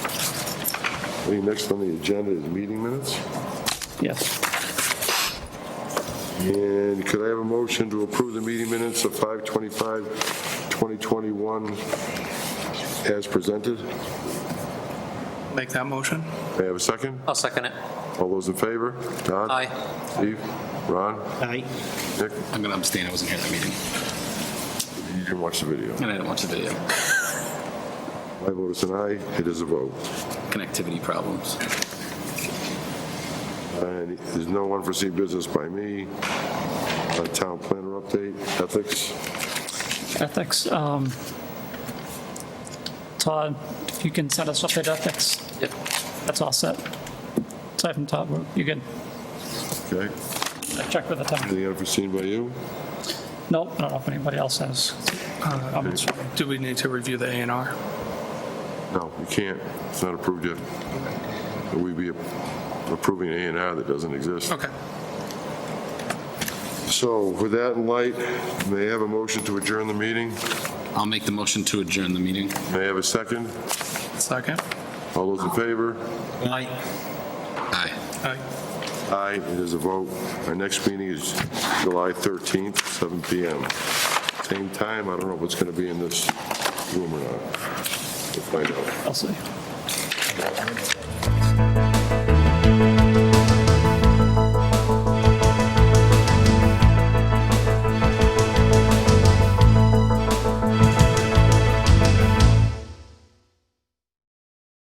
I think next on the agenda is meeting minutes. Yes. And could I have a motion to approve the meeting minutes of 5/25/2021 as presented? May Make that motion? I have a second? I'll second it. All those in favor? Don? Aye. Steve? Ron? Aye. Nick? I'm going to abstain. I wasn't here at that meeting, You didn't watch the video. and I didn't watch the video. My vote is an aye. It is a vote. Connectivity problems. And there's no unforeseen business by me. Uh, Town planner update, ethics. Ethics, um, Todd, if you can send us updated ethics, Yep. that's all set. Aside from Todd, we're- you can Okay. check with the town. Anything unforeseen by you? Nope, I don't know if anybody else has Uh, comments. Do we need to review the A and R? No, you can't. It's not approved yet. We'd be approving an A and R that doesn't exist. Okay. So with that in light, may I have a motion to adjourn the meeting? I'll make the motion to adjourn the meeting. May I have a second? Second? All those in favor? Aye. Aye. Aye, it is a vote. Our next meeting is July 13th, 7 PM. Same time, I don't know if it's going to be in this room or not. We'll find out. I'll see.